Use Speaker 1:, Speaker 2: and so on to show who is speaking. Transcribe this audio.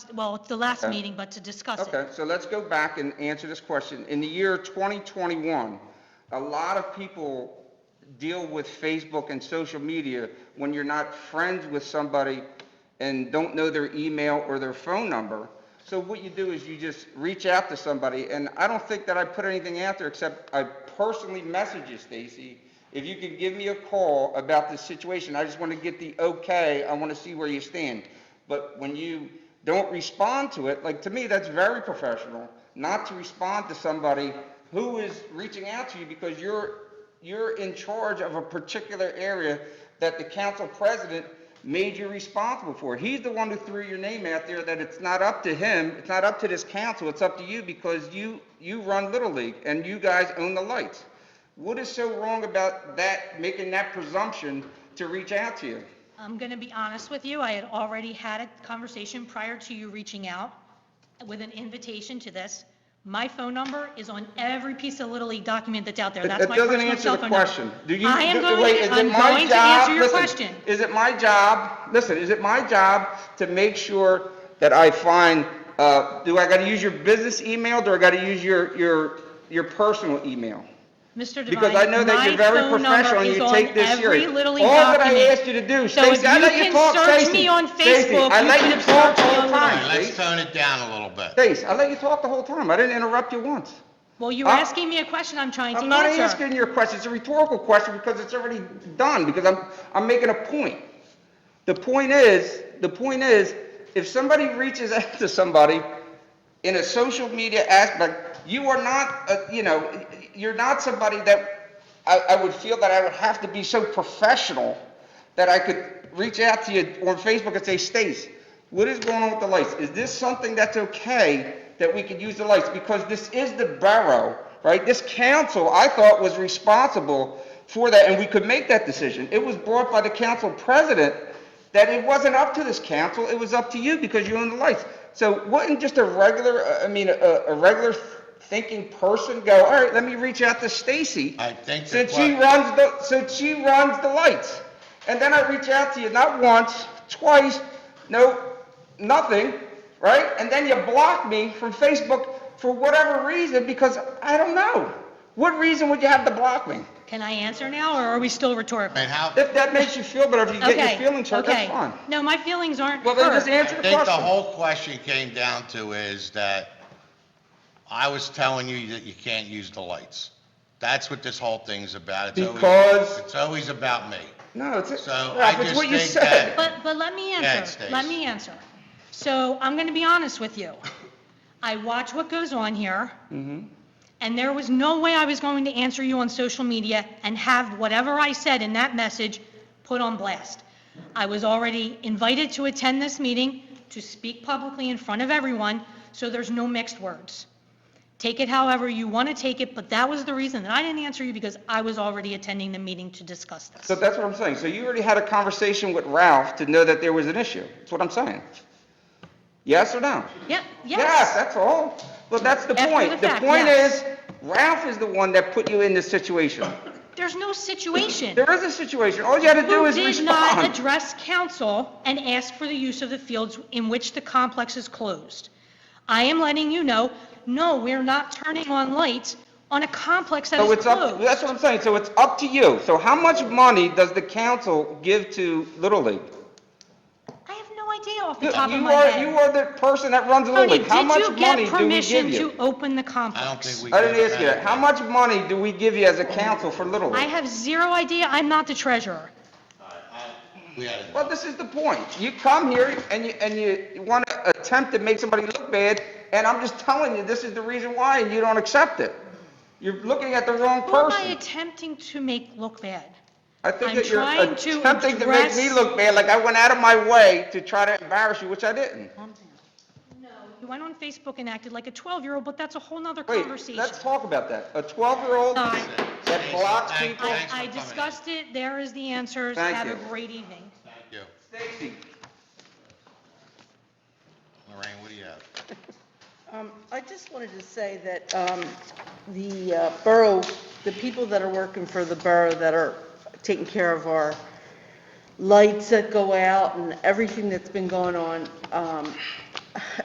Speaker 1: well, it's the last
Speaker 2: Okay.
Speaker 1: meeting, but to discuss it.
Speaker 2: Okay, so let's go back and answer this question. In the year 2021, a lot of people deal with Facebook and social media when you're not friends with somebody and don't know their email or their phone number. So what you do is you just reach out to somebody, and I don't think that I put anything out there except I personally message you, Stacy, if you could give me a call about this situation, I just want to get the okay, I want to see where you stand. But when you don't respond to it, like, to me, that's very professional, not to respond to somebody who is reaching out to you because you're, you're in charge of a particular area that the council president made you responsible for. He's the one who threw your name out there, that it's not up to him, it's not up to this council, it's up to you because you, you run Little League and you guys own the lights. What is so wrong about that, making that presumption to reach out to you?
Speaker 1: I'm going to be honest with you, I had already had a conversation prior to you reaching out with an invitation to this. My phone number is on every piece of Little League document that's out there.
Speaker 2: It-
Speaker 1: That's my
Speaker 2: it doesn't
Speaker 1: personal
Speaker 2: answer
Speaker 1: cell
Speaker 2: the
Speaker 1: phone number.
Speaker 2: question. Do you-
Speaker 1: I am
Speaker 2: do-
Speaker 1: going,
Speaker 2: wait, is it
Speaker 1: I'm
Speaker 2: my
Speaker 1: going to
Speaker 2: job-
Speaker 1: answer your
Speaker 2: listen,
Speaker 1: question.
Speaker 2: Is it my job, listen, is it my job to make sure that I find, uh, do I gotta use your business email, do I gotta use your, your, your personal email?
Speaker 1: Mr.
Speaker 2: Because I know
Speaker 1: Devine,
Speaker 2: that
Speaker 1: my
Speaker 2: you're very
Speaker 1: phone number
Speaker 2: professional and
Speaker 1: is
Speaker 2: you
Speaker 1: on
Speaker 2: take this
Speaker 1: every
Speaker 2: serious.
Speaker 1: Little
Speaker 2: All
Speaker 1: League
Speaker 2: that I
Speaker 1: document.
Speaker 2: asked you to do,
Speaker 1: So if
Speaker 2: Stacy, I
Speaker 1: you
Speaker 2: let you
Speaker 1: can
Speaker 2: talk,
Speaker 1: search
Speaker 2: Stacy.
Speaker 1: me on
Speaker 2: Stacy,
Speaker 1: Facebook,
Speaker 2: I
Speaker 1: you
Speaker 2: let
Speaker 1: can
Speaker 2: you
Speaker 1: have
Speaker 2: talk
Speaker 1: searched me on
Speaker 2: all
Speaker 1: the
Speaker 2: the time,
Speaker 1: line.
Speaker 2: Stacy.
Speaker 3: Let's tone it down a little bit.
Speaker 2: Stace, I let you talk the whole time. I didn't interrupt you once.
Speaker 1: Well, you were
Speaker 2: I-
Speaker 1: asking me a question I'm trying to
Speaker 2: I'm not
Speaker 1: answer.
Speaker 2: asking your question. It's a rhetorical question because it's already done, because I'm, I'm making a point. The point is, the point is, if somebody reaches out to somebody in a social media aspect, you are not, uh, you know, you're not somebody that I, I would feel that I would have to be so professional that I could reach out to you on Facebook and say, Stace, what is going on with the lights? Is this something that's okay that we could use the lights? Because this is the borough, right? This council, I thought, was responsible for that, and we could make that decision. It was brought by the council president that it wasn't up to this council, it was up to you because you own the lights. So wouldn't just a regular, uh, I mean, a, a regular thinking person go, all right, let me reach out to Stacy?
Speaker 3: I think the
Speaker 2: Since she
Speaker 3: que-
Speaker 2: runs the, since she runs the lights. And then I reach out to you, not once, twice, no, nothing, right? And then you block me from Facebook for whatever reason, because I don't know. What reason would you have to block me?
Speaker 1: Can I answer now, or are we still rhetorical?
Speaker 3: And how, I
Speaker 2: If that makes you feel better, if you get
Speaker 1: Okay,
Speaker 2: your feelings hurt,
Speaker 1: okay.
Speaker 2: that's fine.
Speaker 1: No, my feelings aren't
Speaker 2: Well, then just
Speaker 1: hurt.
Speaker 2: answer the
Speaker 3: think the
Speaker 2: question.
Speaker 3: whole question came down to is that I was telling you that you can't use the lights. That's what this whole thing's about. It's always-
Speaker 2: Because-
Speaker 3: It's always about me.
Speaker 2: No, it's,
Speaker 3: So,
Speaker 2: Ralph,
Speaker 3: I
Speaker 2: it's
Speaker 3: just
Speaker 2: what you
Speaker 3: think
Speaker 2: said.
Speaker 3: that-
Speaker 1: But, but let me answer,
Speaker 3: Stace.
Speaker 1: let me answer. So I'm going to be honest with you. I watch what goes on here, and there was no way I was going to answer you on social media and have whatever I said in that message put on blast. I was already invited to attend this meeting, to speak publicly in front of everyone, so there's no mixed words. Take it however you want to take it, but that was the reason that I didn't answer you, because I was already attending the meeting to discuss this.
Speaker 2: So that's what I'm saying. So you already had a conversation with Ralph to know that there was an issue. That's what I'm saying. Yes or no?
Speaker 1: Yeah,
Speaker 2: Yes,
Speaker 1: yes.
Speaker 2: that's all. Well, that's the
Speaker 1: After
Speaker 2: point.
Speaker 1: the
Speaker 2: The
Speaker 1: fact,
Speaker 2: point
Speaker 1: yes.
Speaker 2: is, Ralph is the one that put you in this situation.
Speaker 1: There's no situation.
Speaker 2: There is a situation. All you had to do
Speaker 1: Who
Speaker 2: is
Speaker 1: did not
Speaker 2: respond.
Speaker 1: address council and ask for the use of the fields in which the complex is closed. I am letting you know, no, we're not turning on lights on a complex that
Speaker 2: So
Speaker 1: is
Speaker 2: it's up,
Speaker 1: closed.
Speaker 2: that's what I'm saying. So it's up to you. So how much money does the council give to Little League?
Speaker 1: I have no idea off
Speaker 2: You
Speaker 1: the top of my
Speaker 2: are, you
Speaker 1: head.
Speaker 2: are the person that runs Little
Speaker 1: Tony,
Speaker 2: League. How
Speaker 1: did
Speaker 2: much
Speaker 1: you
Speaker 2: money
Speaker 1: get
Speaker 2: do we give
Speaker 1: permission to
Speaker 2: you?
Speaker 1: open the
Speaker 3: I don't
Speaker 1: complex?
Speaker 3: think we.
Speaker 2: I didn't
Speaker 3: did
Speaker 2: ask you that. How much money do we give you as a council for Little
Speaker 1: I
Speaker 2: League?
Speaker 1: have zero idea. I'm not the treasurer.
Speaker 3: We had it.
Speaker 2: Well, this is the point. You come here and you, and you want to attempt to make somebody look bad, and I'm just telling you, this is the reason why, and you don't accept it. You're looking at the wrong
Speaker 1: Who am I
Speaker 2: person.
Speaker 1: attempting to make look bad?
Speaker 2: I think
Speaker 1: I'm
Speaker 2: that you're
Speaker 1: trying to
Speaker 2: attempting to make me
Speaker 1: address-
Speaker 2: look bad, like I went out of my way to try to embarrass you, which I didn't.
Speaker 1: You went on Facebook and acted like a 12-year-old, but that's a whole nother
Speaker 2: Wait,
Speaker 1: conversation.
Speaker 2: let's talk about that. A 12-year-old
Speaker 1: Sorry.
Speaker 2: that blocks
Speaker 3: Thank-
Speaker 2: people.
Speaker 3: thanks for
Speaker 1: I
Speaker 3: coming in.
Speaker 1: discussed it, there is the answers,
Speaker 2: Thank
Speaker 1: have a
Speaker 2: you.
Speaker 1: great evening.
Speaker 3: Thank you.
Speaker 2: Stacy,
Speaker 3: Lorraine, what do you have?
Speaker 4: Um, I just wanted to say that um, the uh, borough, the people that are working for the borough that are taking care of our lights that go out and everything that's been going on, um,